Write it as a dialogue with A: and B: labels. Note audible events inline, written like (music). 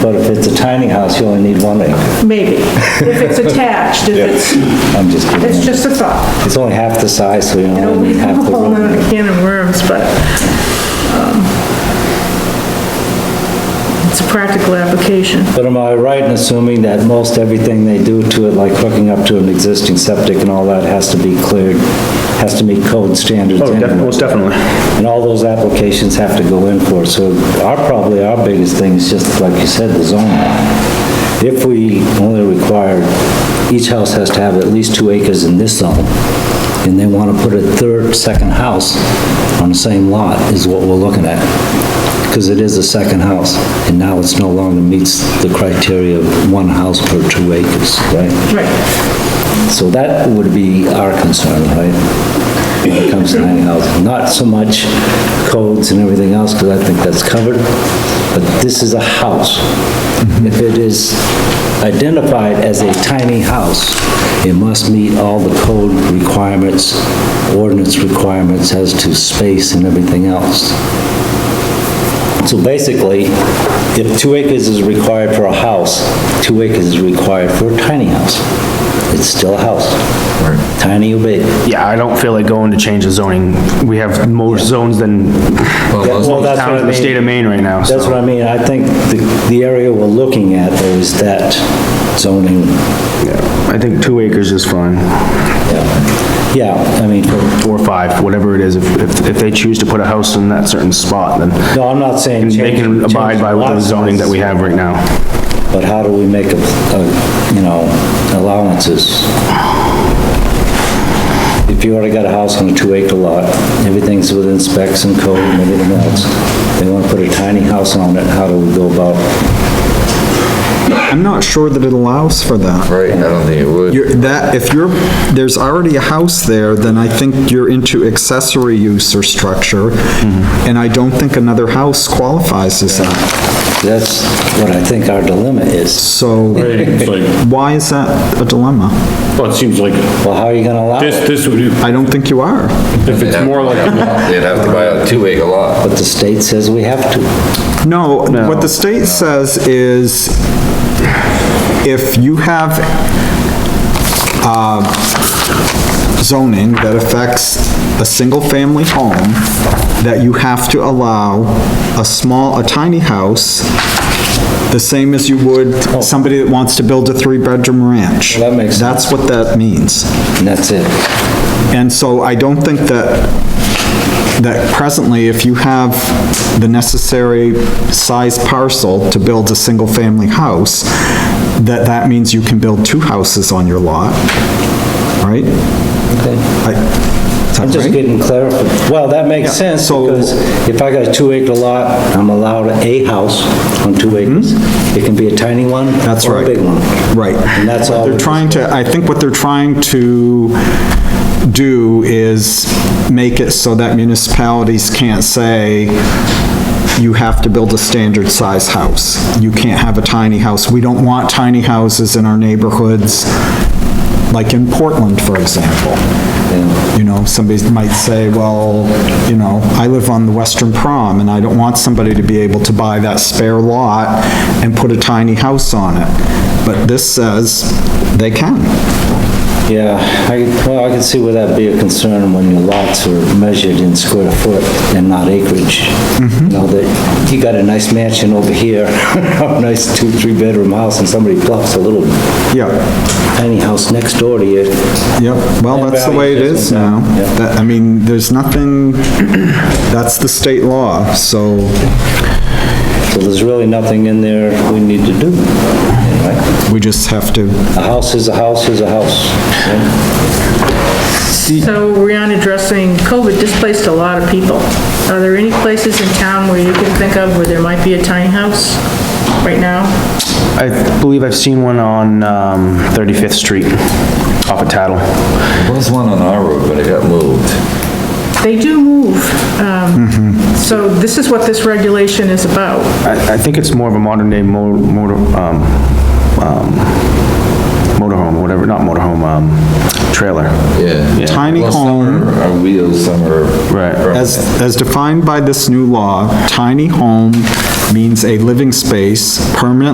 A: But if it's a tiny house, you only need one acre.
B: maybe, if it's attached, if it's,
A: I'm just
B: it's
A: kidding.
B: just a thought.
A: It's only half the size, so you
B: You know,
A: only
B: we
A: need
B: have
A: half
B: a
A: the
B: whole nother
A: room.
B: can of worms, but, um, it's a practical application.
A: But am I right in assuming that most everything they do to it, like hooking up to an existing septic and all that, has to be cleared, has to meet code standards?
C: Oh, def-
A: anyway?
C: most definitely.
A: And all those applications have to go in for it. So our, probably our biggest thing is just, like you said, the zoning. If we only require, each house has to have at least two acres in this zone, and they want to put a third, second house on the same lot is what we're looking at. Because it is a second house, and now it's no longer meets the criteria of one house per two acres, right?
B: Right,
A: So that would be our concern, right? When it comes to tiny housing, not so much codes and everything else, because I think that's covered, but this is a house. If it is identified as a tiny house, it must meet all the code requirements, ordinance requirements as to space and everything else. So basically, if two acres is required for a house, two acres is required for a tiny house. It's still a house. Tiny or big.
C: Yeah, I don't feel like going to change the zoning. We have more zones than
A: Well, that's
C: town
A: what I
C: in the
A: mean.
C: state of Maine right now,
A: That's what
C: so.
A: I mean, I think the, the area we're looking at though is that zoning.
C: yeah. I think two acres is fine,
A: Yeah, Yeah. I mean,
C: or five, whatever it is. If, if, if they choose to put a house in that certain spot, then
A: no, I'm not saying
C: they
A: change-
C: can abide
A: change
C: by
A: lot
C: the zoning that we have right now.
A: size, But how do we make, a- a, you know, allowances? If you already got a house on a two acre lot, everything's within specs and code and everything else, they wanna put a tiny house on it, how do we go about?
D: I'm not sure that it allows for that.
E: Right, I don't think it would.
D: You're, that, if you're, there's already a house there, then I think you're into accessory use or structure,
E: Mm-hmm.
D: and I don't think another house qualifies as that.
A: That's what I think our dilemma is.
D: So,
F: It's like,
D: why is that a dilemma?
F: well, it seems like
A: Well, how are you gonna allow it?
F: this, this would,
D: I don't think you are.
F: if it's more like,
E: (laughs) They'd have to buy a two acre lot.
A: But the state says we have to.
D: No, what the state says is, if you have, uh, zoning that affects a single-family home, that you have to allow a small, a tiny house, the same as you would somebody that wants to build a three-bedroom ranch.
A: Oh. Well, that makes
D: That's what that means.
A: And that's it.
D: And so I don't think that, that presently, if you have the necessary size parcel to build a single-family house, that that means you can build two houses on your lot, right?
A: Okay.
D: I- is that
A: I'm just
D: right?
A: getting clarified. Well, that makes
D: Yeah,
A: sense
D: so-
A: because if I got a two acre lot, I'm allowed a house on two acres. It can be a tiny one
D: Mm-hmm. That's
A: or a
D: right.
A: big one.
D: Right.
A: And that's all.
D: They're trying to, I think what they're trying to do is make it so that municipalities can't say, you have to build a standard size house. You can't have a tiny house. We don't want tiny houses in our neighborhoods, like in Portland, for example. You know, somebody might say, well, you know, I live on the Western Prom, and I don't want somebody to be able to buy that spare lot and put a tiny house on it. But this says they can.
A: Yeah, I, well, I can see where that'd be a concern when your lots are measured in square foot and not acreage.
D: Mm-hmm.
A: You know, that, you got a nice mansion over here, (laughs) a nice two, three bedroom house and somebody plops a little
D: Yeah.
A: tiny house next door to you.
D: Yep, well,
A: And
D: that's the way it
A: value
D: is
A: judgment,
D: now.
A: yeah.
D: That- I mean, there's nothing, (clears throat) that's the state law, so,
A: So there's really nothing in there we need to do. right?
D: we just have to,
A: A house is a house is a house. right?
B: so Rihanna addressing COVID displaced a lot of people. Are there any places in town where you can think of where there might be a tiny house right now?
C: I believe I've seen one on, um, 35th Street, off of Tattle.
E: There was one on our road, but it got moved.
B: They do move, um, so this is what this regulation is about.
C: I, I think it's more of a modern day mo- motor, um, um, motorhome, whatever, not motorhome, um, trailer.
E: Yeah.
D: Tiny
E: Well, some
D: home.
E: are- Are wheels, some are.
C: Right.
D: as, as defined by this new law, tiny home means a living space permanently